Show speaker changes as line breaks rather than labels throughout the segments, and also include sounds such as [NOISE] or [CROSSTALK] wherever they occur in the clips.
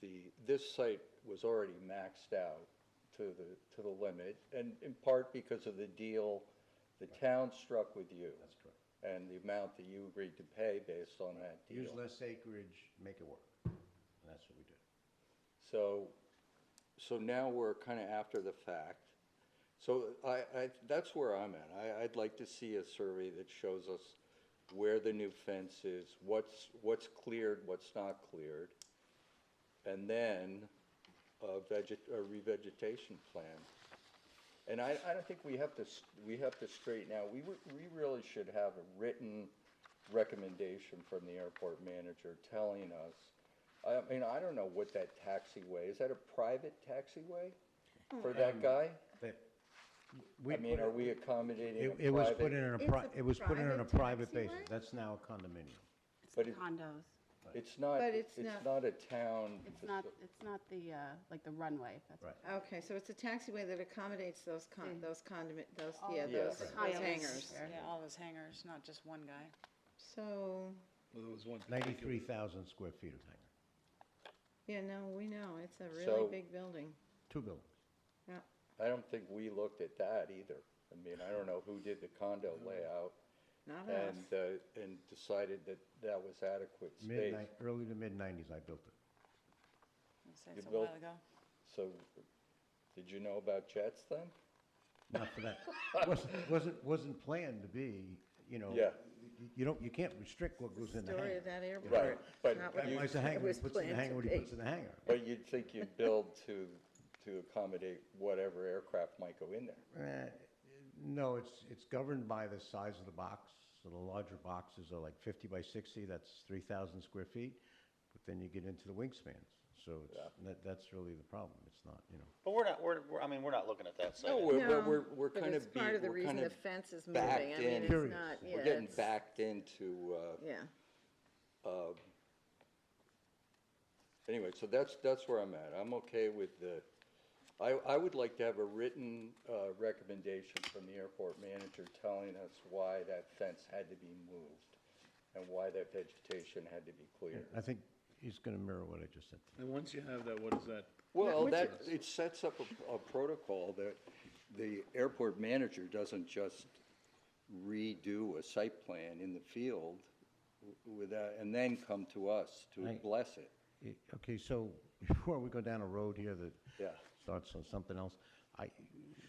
the, this site was already maxed out to the, to the limit, and in part because of the deal the town struck with you.
That's correct.
And the amount that you agreed to pay based on that deal.
Use less acreage, make it work. And that's what we did.
So, so now we're kind of after the fact. So I, I, that's where I'm at. I, I'd like to see a survey that shows us where the new fence is, what's, what's cleared, what's not cleared, and then a veget, a revegetation plan. And I, I don't think we have to, s- we have to straighten out, we, would- we really should have a written recommendation from the airport manager telling us, I mean, I don't know what that taxiway, is that a private taxiway for that guy?
But Hmm. Um, we
I mean,
put
are
it-
we accommodating
It,
a
it was put
private?
in a,
It's
pri-
a
it was put in on a
private
private basis.
taxiway?
That's now a condominium.
But
It's
it-
condos.
It's not,
But
it's
it's not-
not a town.
It's not, it's not the, uh, like the runway. That's-
Right.
Okay, so it's a taxiway that accommodates those con,
Mm.
those condiment, those,
All
yeah,
of
those
those
those
condos.
hangers.
Yeah.
Yeah, all those hangers, not just one guy.
So,
Well, there was one.
Ninety-three thousand square feet of hangar,
yeah, no, we know, it's a
So-
really big building.
two buildings.
Yeah,
I don't think we looked at that either. I mean, I don't know who did the condo layout
not us.
and, uh, and decided that that was adequate space.
Midnight, early to mid-nineties, I built it.
I'd say
You
It's a
built-
while ago.
So, did you know about jets then?
Not for that. [LAUGHS] Wasn't, wasn't, wasn't planned to be, you know.
Yeah.
y- You don't, you can't restrict what goes in the
Story
hangar.
of that
Right,
airport.
but
Not
That
what-
you-
was the hangar,
was
he puts in the
planned to
hangar, what he
be.
puts in the hangar.
But you'd think you'd build to, to accommodate whatever aircraft might go in there.
Eh, No, it's, it's governed by the size of the box. So the larger boxes are like fifty by sixty, that's three thousand square feet. But then you get into the wingspans. So it's, that, that's really the problem. It's not, you know.
But we're not, we're, we're- I mean, we're not looking at that site.
No, we're, we're,
No,
we're, we're
but
kind
it's
of, be-
part of the
we're
reason
kind
the
of
fence is moving. I
backed
mean,
in.
it's
Curious.
not- yeah,
We're getting
it's-
backed into, uh,
Yeah,
Uh, Anyway, so that's, that's where I'm at. I'm okay with the, I, I would like to have a written uh, recommendation from the airport manager telling us why that fence had to be moved and why that vegetation had to be cleared.
I think he's gonna mirror what I just said.
And once you have that, what is that?
Well, that, it sets up a, a protocol that the airport manager doesn't just redo a site plan in the field w- without, and then come to us to
Right.
bless it.
I- Okay, so [LAUGHS] before we go down a road here that
Yeah.
starts on something else, I,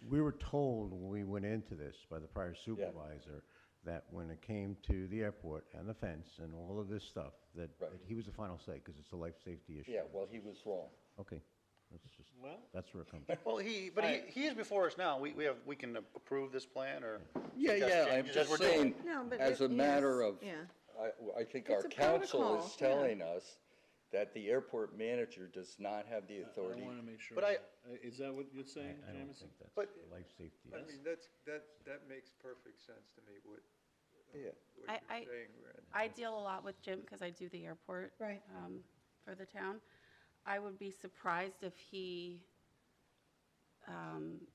we were told when we went into this by the prior supervisor that when it came to the airport and the fence and all of this stuff, that
Right.
that he was the final say, because it's a life safety issue.
Yeah, well, he was wrong.
Okay, that's just,
Well-
that's where it comes from.
Well, he, but he, he is before us now. We, we have, we can approve this plan or.
Yeah,
suggest
yeah, I'm
changes as
just
we're doing.
saying,
No, but
as a
it-
matter
yes,
of,
yeah.
I, I think our
It's a
council is
protocol, yeah.
telling us that the airport manager does not have the
I
authority.
want to make sure.
But I-
Uh, Is that what you're saying,
I don't
Jameson?
think that's
But-
a life safety.
I
issue.
mean, that's, that, that makes perfect sense to me, what, uh,
Yeah.
I-
what
I-
you're saying, Ren.
I deal a lot with Jim because I do the airport.
Right.
um, For the town. I would be surprised if he um,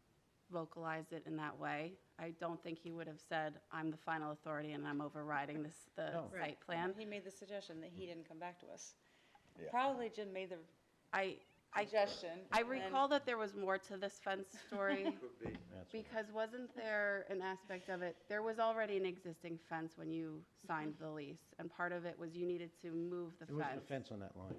vocalized it in that way. I don't think he would have said, I'm the final authority and I'm overriding this, the
No.
site plan.
He made the suggestion that he didn't come back to us.
Yeah.
Probably Jim made the
I, I,
suggestion.
I
and then-
recall that there was more to this fence [LAUGHS] story.
Could be.
That's what-
Because wasn't there an aspect of it, there was already an existing fence when you signed the lease, and part of it was you needed to move the
There Mm-hmm. wasn't a
fence.
fence on that line.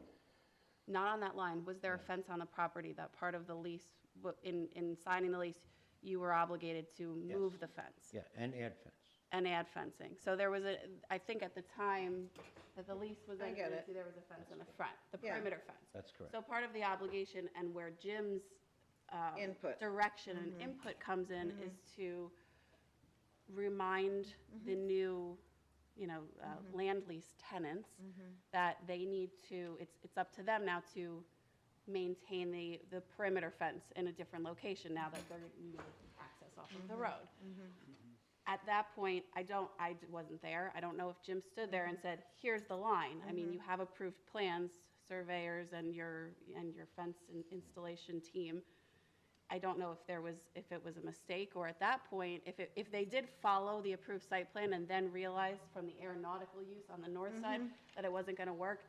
Not on that line, was there a fence on the property that part of the lease, wa- in, in signing the lease, you were obligated to move the fence?
Yeah, and add fence.
And add fencing, so there was a, I think at the time that the lease was
I get
entered
it.
into, there was a fence in the front, the
Yeah.
perimeter fence.
That's correct.
So part of the obligation and where Jim's um,
Input.
direction and input comes in is to remind the new, you know, uh, land lease tenants that they need to, it's, it's up to them now to maintain the, the perimeter fence in a different location now that they're needing access off of the road. At that point, I don't, I d- wasn't there. I don't know if Jim stood there and said, here's the line. I mean, you have approved plans, surveyors and your, and your fence in- installation team. I don't know if there was, if it was a mistake, or at that point, if it, if they did follow the approved site plan and then realized from the aeronautical use on the north side that it wasn't gonna work,